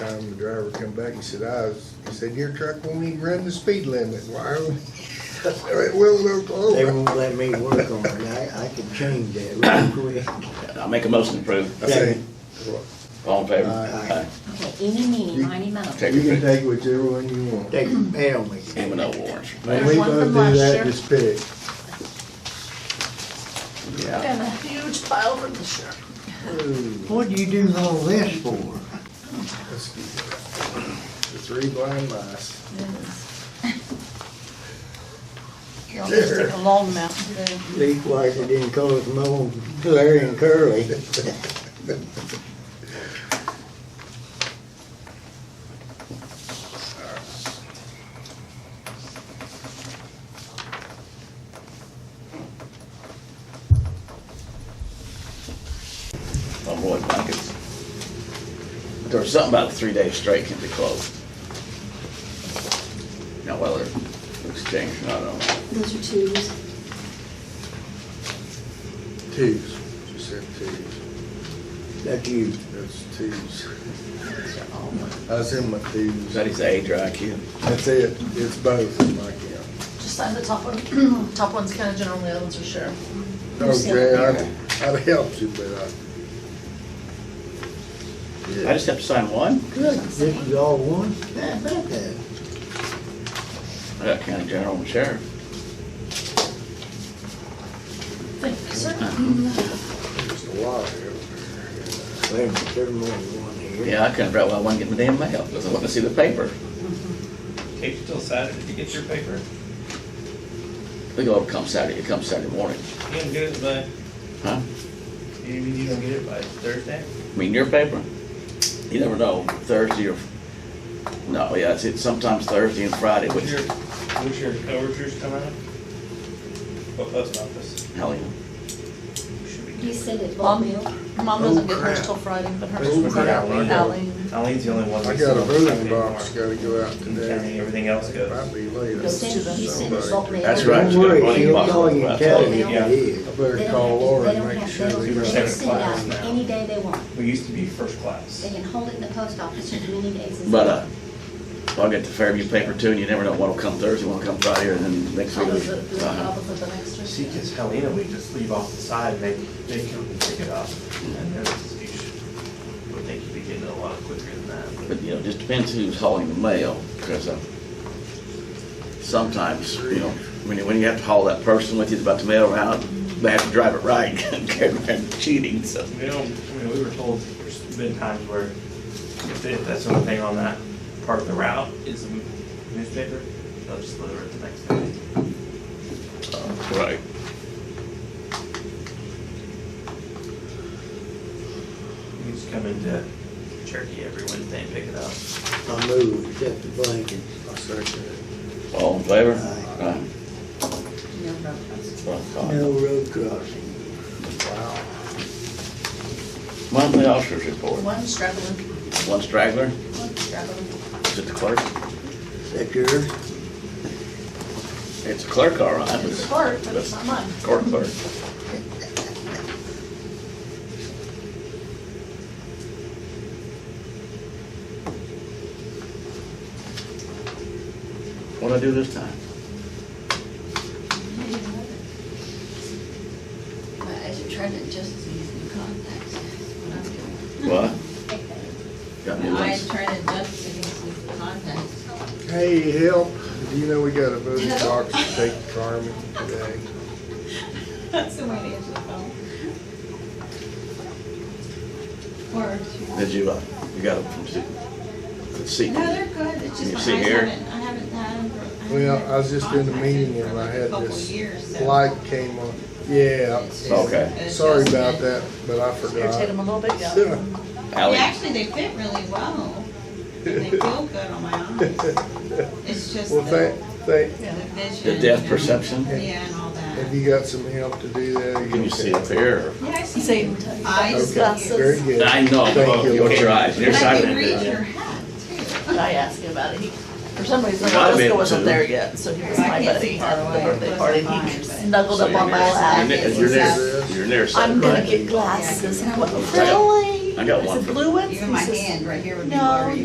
time the driver come back, he said, I was, he said, your truck won't even run the speed limit. Why? would-" It will in They Oklahoma. won't let me work on it. I, I can change that real quick. I make a motion to approve. I say, All in favor? Aye. Okay, any, meeny, miny, mo. Take you your can pick. take whichever one you want. They can mail me. Even though warrants. When we One both from do last that, year. just pick. Yeah. And a huge pile of the shirt. What do you do all this for? Let's get it. The three blind mice. Here, I'll just take a long mountain Dew. Leak wiper didn't cause more Larry and Curly. I'm Roy Blankets. There was something about three days straight can be closed. Now whether exchange, I don't know. Those are twos. Twos. She said twos. That's you. That's twos. I was in my twos. Is that his age or IQ? That's it. It's both in my account. Just sign the top one. Top one's kind of general, the other ones are sheriff. Oh, Okay, I'd, I'd help you, but uh, I. I just have to sign one? Good. This is all one? How about that? I got county general and sheriff. Thank you, sir. Just a lot here. Wait a minute, there's more than one here. Yeah, I couldn't figure out why I wasn't getting the damn mail, because I wanted to see the paper. Kate, till Saturday to get your paper? We go over come Saturday, it comes Saturday morning. You don't get it by, Huh? you mean you don't get it by Thursday? I mean, your paper, you never know, Thursday or, no, yeah, it's- it's sometimes Thursday and Friday, What's which, your, what's your overtures come out? What post office? hell, yeah. You Should be You good. said it, Mom, Bonneville. mom doesn't Oh, get hers till Friday, but hers is Oh, crap. Alan. Eileen's the only one. I that's got a on voting Sunday box, morning. gotta go out In county, today. everything else goes. Might be late. Those two, You said it's Somebody- Salt Lake. That's right. Don't it's got a worry, running she'll box call you on and it. tell They you don't- what it is. I They better don't call have to- Laura they and don't make have- sure. that- They don't- they can send it out any day they want. We used to be first They class. can hold it in the post office as many days as. But, uh, I'll get the Fairview paper too, and you never know what'll come Thursday, what'll come Friday, or then next How was it, week. the uh, top of the next one? See, cause Helena, we just leave off the side, and they, they come and pick it up. And there's, you should, would think you'd be getting it a lot quicker than that. But, you know, just depends who's hauling the mail, because, uh, sometimes, you know, when you, when you have to haul that person with you that's about to mail around, they have to drive it right, and cheating, so. We don't, I mean, we were told, there's been times where if they- if that's the only thing on that part of the route is the newspaper, they'll just deliver it the next day. Right. You just come into Cherokee every Wednesday and pick it up. I move, accept the blanket. I second All in favor? Aye. Aye. No, no, that's- Well, God. No road crossing. it. Wow. Monthly officers report. One struggling, One straggler, one struggling. is it the clerk? Is that yours? It's a clerk, all right. but It's hard, but it's not mine. Court clerk. What'd I do this time? My eyes are trying to adjust to these new contacts. That's what I'm doing. What? Got new My eyes ones? trying to adjust to these new contacts. Hey, help, do you know we got a voting box to take to Carmen today? That's the way to answer the phone. Or two. Did you, uh, you got them from Se- from Seaton? No, they're good, it's You just see my eyes here? haven't, I haven't had them for. I Well, haven't I was just in a contacted meeting for and I like a had couple this years, so light came on, yeah. it's just Okay. an Sorry about adjustment. that, but I forgot. Irritate them a little bit, yeah. Yeah. Ally? Actually, they fit really well. They feel good on my eyes. It's just Well, the, thank, thank, the vision. The depth and- perception? Yeah, and all have that. you got some help to do that? Are Can you see okay? up here? Yeah, I see. Same Eyes, Okay, very glasses. good. I know, Thank you. your eyes, But your I side. can read your hat too. I asked him about it. He, for some reason, Not a bit Alaska wasn't too. there yet, so he was I my can't buddy see at far the away. birthday party. and He Close snuggled up on my You're lap. near, eyes. you're near, Exactly. you're near I'm side, gonna right? get glasses. And I went, Okay. really? I got one I said, for- blue ones? Even He my says, hand right here would be No, blurry.